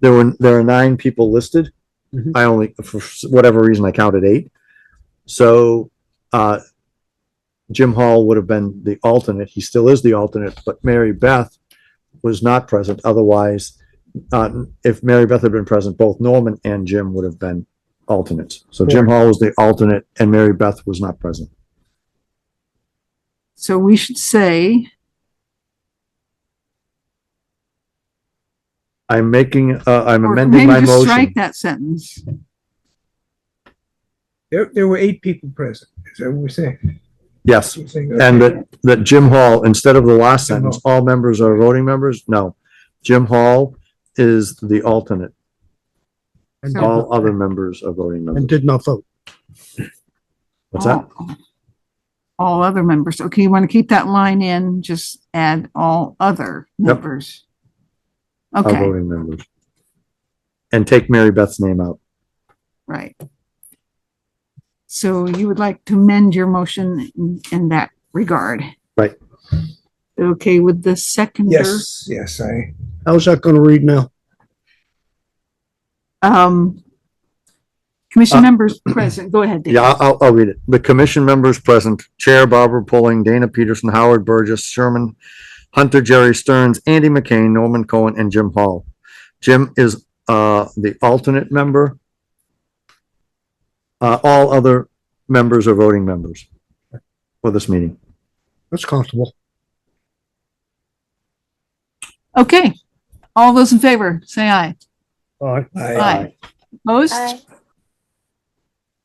there were, there are nine people listed. Mm-hmm. Mhm. I only, for whatever reason, I counted eight. So, uh, Jim Hall would have been the alternate. He still is the alternate, but Mary Beth was not present. Otherwise, uh, if Mary Beth had been present, both Norman and Jim would have been alternates. So Jim Hall was the alternate and Mary Beth was not present. So we should say, I'm making, uh, I'm or amending my maybe just strike motion. that sentence. There, there were eight people present, is that what we're saying? Yes. We're saying- And uh, that, that Jim Hall, instead of the last Jim Hall. sentence, all members are voting members? No. Jim Hall is the alternate. And did All not- other members are voting And members. did not vote. What's that? All- All other members. Okay, you want to keep that line in, just add all other Yep. members. Are Oh, Okay, voting members. And take Mary Beth's name out. right. So you would like to mend your motion in- in that regard? Right. Okay, with the seconder? Yes, yes, I, How's that gonna read now? Um, commission Uh, members present, go ahead. Dave. Yeah, I'll, I'll- I'll read it. The commission members present, Chair Barbara Pulling, Dana Peterson, Howard Burgess, Sherman, Hunter, Jerry Stearns, Andy McCain, Norman Cohen, and Jim Hall. Jim is, uh, the alternate member. Uh, all other members are voting members for this meeting. That's comfortable. Okay, all those in favor, say aye. All right. I, Opposed?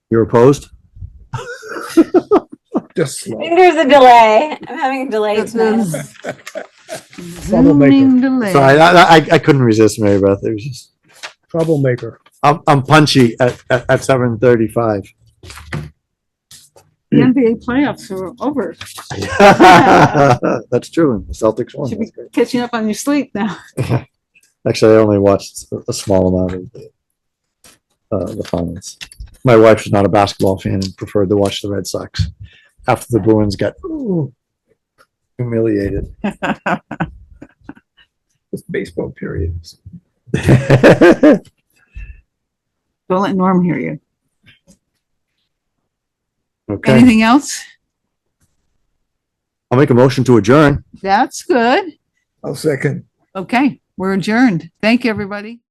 You're opposed? just slow. There's a delay. I'm having a delay This tonight. is- Zooming delay. Sorry, I, I, I couldn't resist Mary Beth. It was just, Troublemaker. I'm, I'm punchy at, at, at seven thirty-five. The NBA playoffs are over. That's true. The Celtics won. Should be catching up on your sleep now. Actually, I only watched a- a small amount of the, uh, the finals. My wife was not a basketball fan and preferred to watch the Red Sox after the Bruins got ooh, humiliated. It's baseball periods. Don't let Norm hear you. Okay, Anything else? I'll make a motion to adjourn. That's good. I'll second. Okay, we're adjourned. Thank you, everybody.